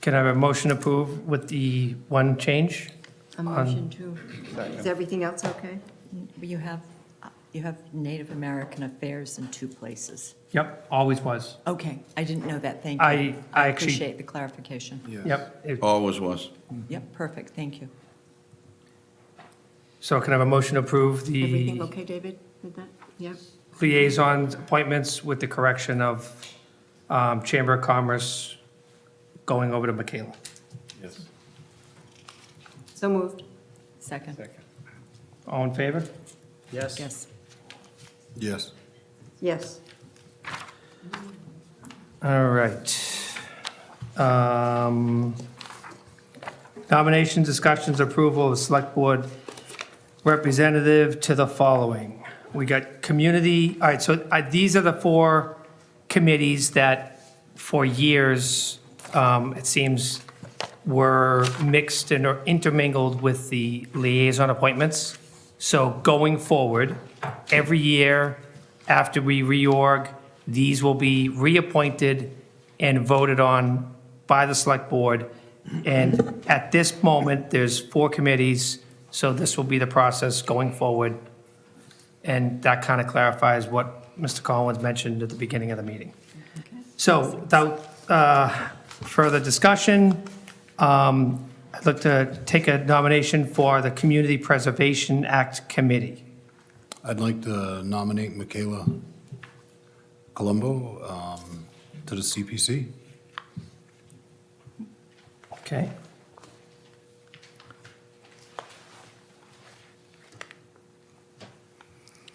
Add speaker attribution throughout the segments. Speaker 1: Can I have a motion to approve with the one change?
Speaker 2: A
Speaker 1: Um,
Speaker 2: motion to,
Speaker 3: Is everything else okay?
Speaker 2: you have, uh, you have Native American Affairs in two places.
Speaker 1: Yep, always was.
Speaker 2: Okay, I didn't know that, thank you.
Speaker 1: I- I actually-
Speaker 2: Appreciate the clarification.
Speaker 1: Yep. It-
Speaker 4: Always was.
Speaker 1: Mm-hmm.
Speaker 2: Yep, perfect, thank you.
Speaker 1: So can I have a motion to approve
Speaker 3: Everything
Speaker 1: the
Speaker 3: okay, David, with that? Yeah,
Speaker 1: liaison appointments with the correction of um, Chamber of Commerce going over to Michaela?
Speaker 3: so moved.
Speaker 2: Second,
Speaker 1: All in favor?
Speaker 5: Yes.
Speaker 2: yes.
Speaker 4: Yes.
Speaker 3: Yes,
Speaker 1: All right. Um, Nomination, discussions, approval of Select Board representative to the following. We got community, all right, so uh, these are the four committees that for years, um, it seems, were mixed and or intermingled with the liaison appointments. So going forward, every year after we reorg, these will be reappointed and voted on by the select board. And at this moment, there's four committees, so this will be the process going forward. And that kind of clarifies what Mr. Collins mentioned at the beginning of the meeting. So without uh, further discussion, um, I'd like to take a nomination for the Community Preservation Act Committee.
Speaker 6: I'd like to nominate Michaela Colombo um, to the CPC.
Speaker 1: Okay.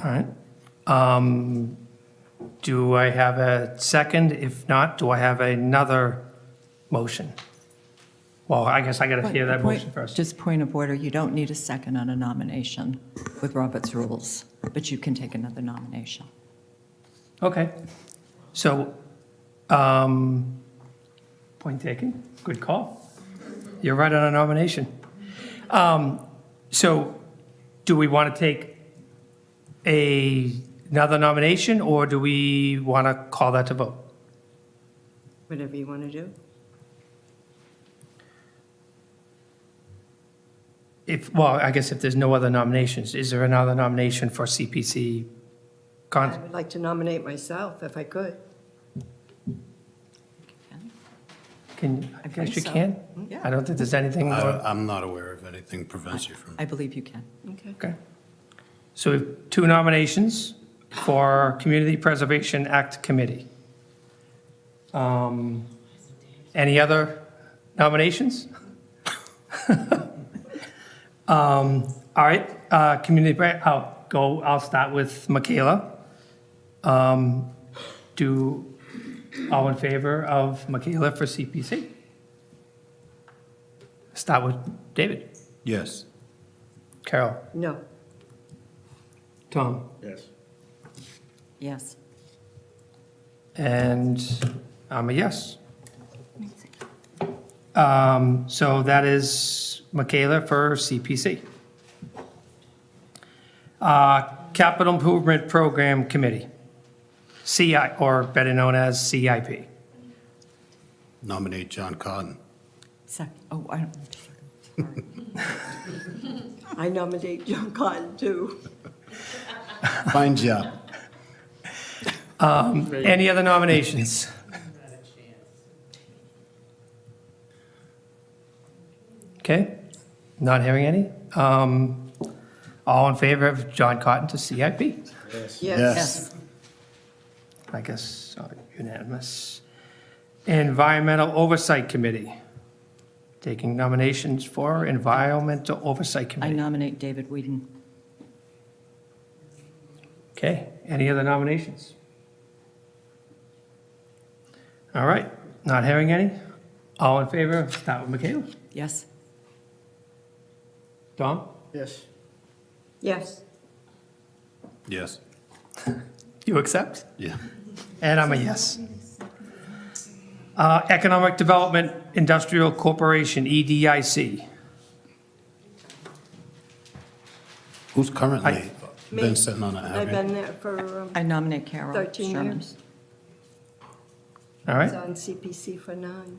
Speaker 1: All right. Um, Do I have a second? If not, do I have another motion? Well, I guess I got to hear that
Speaker 2: Point-
Speaker 1: motion first.
Speaker 2: Just point of order, you don't need a second on a nomination with Robert's rules, but you can take another nomination.
Speaker 1: Okay. So, um, point taken. Good call. You're right on a nomination. Um, so do we want to take a, another nomination or do we want to call that to vote?
Speaker 3: whatever you want to do.
Speaker 1: If, well, I guess if there's no other nominations, is there another nomination for CPC?
Speaker 3: I
Speaker 1: Con,
Speaker 3: would like to nominate myself if I could.
Speaker 1: can, I guess you
Speaker 2: think so. Mm-hmm.
Speaker 1: can?
Speaker 2: Yeah.
Speaker 1: I don't think there's anything more.
Speaker 6: I- I'm not aware of anything prevents you from.
Speaker 2: I believe you can.
Speaker 3: Okay.
Speaker 1: Okay. So we have two nominations for our Community Preservation Act Committee. Um, Any other nominations? Um, All right, uh, community, pre- I'll go, I'll start with Michaela. Um, Do, all in favor of Michaela for CPC? Start with David,
Speaker 6: Yes.
Speaker 1: Carol,
Speaker 3: No,
Speaker 1: Tom.
Speaker 5: Yes.
Speaker 2: Yes.
Speaker 1: And I'm a yes. Um, So that is Michaela for CPC. Uh, Capital Improvement Program Committee, CI, or better known as CIP.
Speaker 6: Nominate John Cotton.
Speaker 2: Second, oh, I don't, sorry.
Speaker 3: I nominate John Cotton too.
Speaker 6: Fine job.
Speaker 1: Any other nominations? Okay, not hearing any. Um, All in favor of John Cotton to CIP?
Speaker 3: Yes,
Speaker 6: Yes.
Speaker 2: Yes,
Speaker 1: I guess uh, unanimous. Environmental Oversight Committee, taking nominations for Environmental Oversight
Speaker 2: I
Speaker 1: Committee.
Speaker 2: nominate David Whedon.
Speaker 1: Okay, any other nominations? All right, not hearing any? All in favor, start with Michaela.
Speaker 2: Yes,
Speaker 1: Tom?
Speaker 5: Yes.
Speaker 3: yes,
Speaker 6: Yes.
Speaker 1: You accept?
Speaker 6: Yeah.
Speaker 1: And I'm a yes. Uh, Economic Development Industrial Corporation, E EDIC.
Speaker 6: Who's currently
Speaker 3: Me.
Speaker 6: been sitting on it?
Speaker 3: I've
Speaker 6: haven't
Speaker 3: been there for, um,
Speaker 2: I nominate Carol
Speaker 3: 13
Speaker 2: Sherman.
Speaker 3: years.
Speaker 1: All right,
Speaker 3: was on CPC for nine.